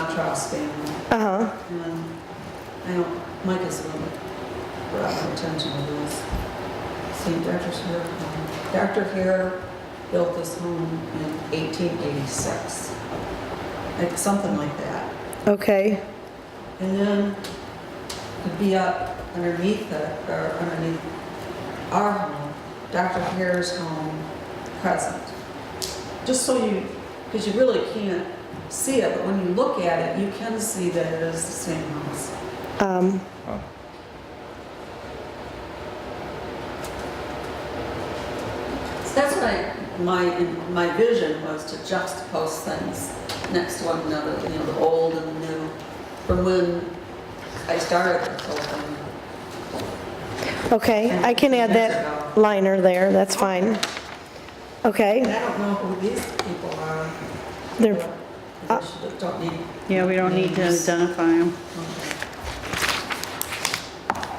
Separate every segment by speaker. Speaker 1: Montross family.
Speaker 2: Uh-huh.
Speaker 1: And I don't, Micah's a little bit brought my attention to this. See, Dr. Hare, um, Dr. Hare built this home in 1886, like something like that.
Speaker 2: Okay.
Speaker 1: And then it'd be up underneath the, or underneath our home, Dr. Hare's home present. Just so you, because you really can't see it, but when you look at it, you can see that it is the same house.
Speaker 2: Um,
Speaker 1: So that's what I, my, my vision was to juxtapose things next to one another, you know, the old and the new, from when I started this whole thing.
Speaker 2: okay, I can add that liner there, that's fine.
Speaker 1: And
Speaker 2: Okay,
Speaker 1: I don't know who these people are.
Speaker 2: they're,
Speaker 1: I
Speaker 2: uh,
Speaker 1: should- Don't need.
Speaker 3: Yeah, we don't need to
Speaker 1: names.
Speaker 3: identify them.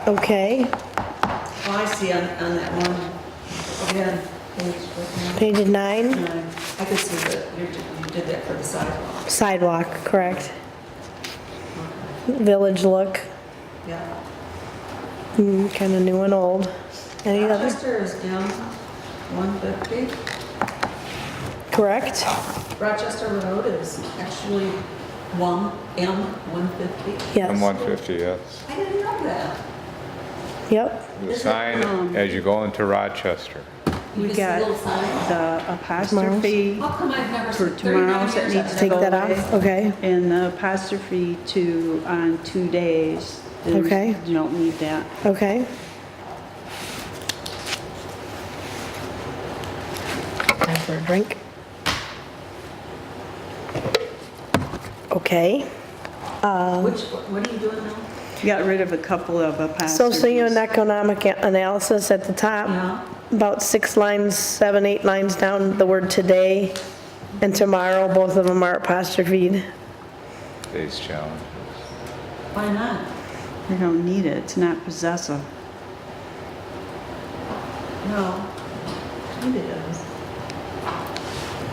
Speaker 2: okay,
Speaker 1: Oh, I see on, on that one, again, page, what
Speaker 2: page nine,
Speaker 1: now? Nine. I could see that you did- you did that for the sidewalk.
Speaker 2: sidewalk, correct. Village look,
Speaker 1: Yeah.
Speaker 2: kind of new and old. Any other,
Speaker 1: Rochester is down 150.
Speaker 2: correct?
Speaker 1: Rochester Road is actually 1, M 150.
Speaker 2: Yes,
Speaker 4: And 150, yes.
Speaker 1: I didn't know that.
Speaker 2: yep,
Speaker 4: The
Speaker 2: Um.
Speaker 4: sign as you go into Rochester.
Speaker 3: We
Speaker 1: You see
Speaker 3: got
Speaker 1: little sign.
Speaker 3: the apostrophe
Speaker 1: How come I've never
Speaker 3: for
Speaker 1: seen 39
Speaker 3: tomorrow's that
Speaker 1: years?
Speaker 3: needs to
Speaker 2: take
Speaker 3: go
Speaker 2: that off,
Speaker 3: away.
Speaker 2: okay.
Speaker 3: And the apostrophe to on two days. There's-
Speaker 2: Okay.
Speaker 3: You don't need that.
Speaker 2: Okay. Time for a drink. Okay,
Speaker 1: Which, what are you doing now?
Speaker 3: Got rid of a couple of apostrophes.
Speaker 2: socioeconomic analysis at the top,
Speaker 1: Yeah.
Speaker 2: about six lines, seven, eight lines down, the word today and tomorrow, both of them are apostrophed.
Speaker 4: Today's challenges.
Speaker 1: Why not?
Speaker 3: We don't need it. It's not possessive.
Speaker 1: No. Maybe it is.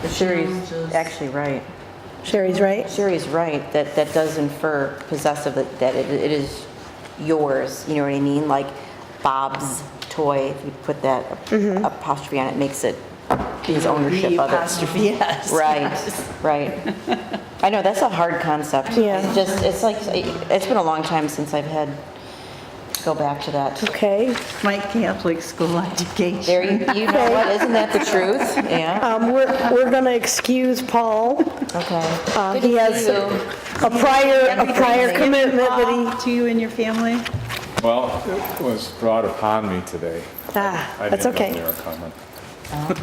Speaker 5: But Sherry's
Speaker 1: Challenges.
Speaker 5: actually right.
Speaker 2: Sherry's right?
Speaker 5: Sherry's right, that, that does infer possessive, that that it it is yours, you know what I mean? Like Bob's toy, if you put that
Speaker 2: Mm-hmm.
Speaker 5: apostrophe on it, makes it his ownership of it.
Speaker 6: apostrophe, yes.
Speaker 5: Right, right. I know, that's a hard concept.
Speaker 2: Yeah.
Speaker 5: It's just, it's like, it's been a long time since I've had, go back to that.
Speaker 2: Okay,
Speaker 3: My Catholic school education.
Speaker 5: There, you you know what, isn't that the truth? Yeah,
Speaker 2: um, we're, we're gonna excuse Paul.
Speaker 5: okay.
Speaker 2: Uh, He has a prior, a prior commitment that
Speaker 3: To you and your family?
Speaker 4: Well, it was brought upon me today.
Speaker 2: he, ah,
Speaker 4: I
Speaker 2: that's
Speaker 4: didn't know
Speaker 2: okay.
Speaker 4: they were coming.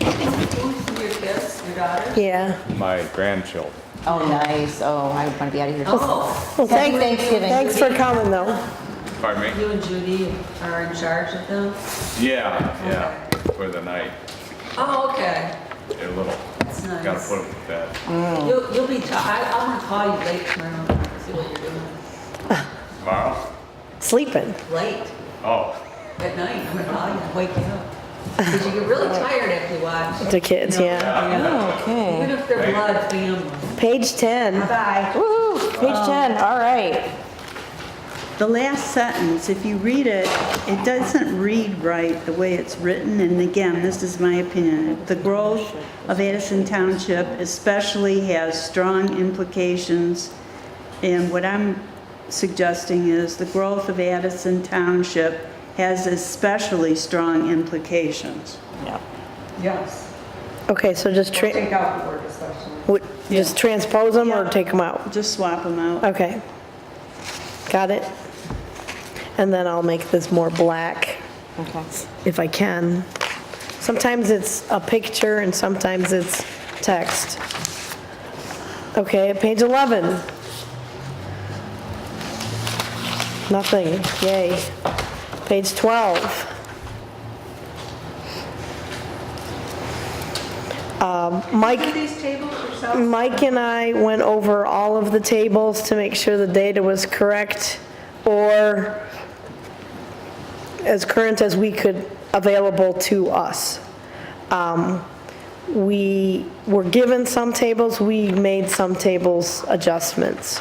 Speaker 1: Your kids, your daughter?
Speaker 2: Yeah.
Speaker 4: My grandchildren.
Speaker 5: Oh, nice, oh, I want to be out of here.
Speaker 1: Oh,
Speaker 2: Well,
Speaker 5: Happy
Speaker 2: thank-
Speaker 5: Thanksgiving.
Speaker 2: Thanks for coming, though.
Speaker 4: Pardon me?
Speaker 1: you and Judy are in charge of them?
Speaker 4: Yeah, yeah, for the night.
Speaker 1: Oh, okay.
Speaker 4: They're little.
Speaker 1: That's nice.
Speaker 4: Gotta put them to bed.
Speaker 1: You'll, you'll be, I, I'm gonna call you late tomorrow, see what you're doing.
Speaker 4: Tomorrow?
Speaker 2: Sleeping.
Speaker 1: Late,
Speaker 4: Oh,
Speaker 1: at night, I'm gonna call you, wake you up. Because you get really tired after you watch.
Speaker 2: The kids,
Speaker 1: you know?
Speaker 2: yeah.
Speaker 5: Okay.
Speaker 1: Even if they're blood family.
Speaker 2: Page 10.
Speaker 1: Bye.
Speaker 5: Woo, page 10, all right.
Speaker 3: The last sentence, if you read it, it doesn't read right the way it's written, and again, this is my opinion. The growth of Addison Township especially has strong implications, and what I'm suggesting is the growth of Addison Township has especially strong implications.
Speaker 5: Yeah.
Speaker 1: Yes.
Speaker 2: Okay, so just, tra-
Speaker 1: Take out the word especially.
Speaker 2: would- just transpose them or
Speaker 3: Yeah.
Speaker 2: take them out?
Speaker 3: Just swap them out.
Speaker 2: Okay. Got it? And then I'll make this more black
Speaker 5: Okay.
Speaker 2: if I can. Sometimes it's a picture and sometimes it's text. Okay, page 11. Nothing, yay. Page 12. Um, Mike,
Speaker 1: These tables are so
Speaker 2: Mike and I went over all of the tables to make sure the data was correct or as current as we could, available to us. Um, we were given some tables, we made some tables adjustments.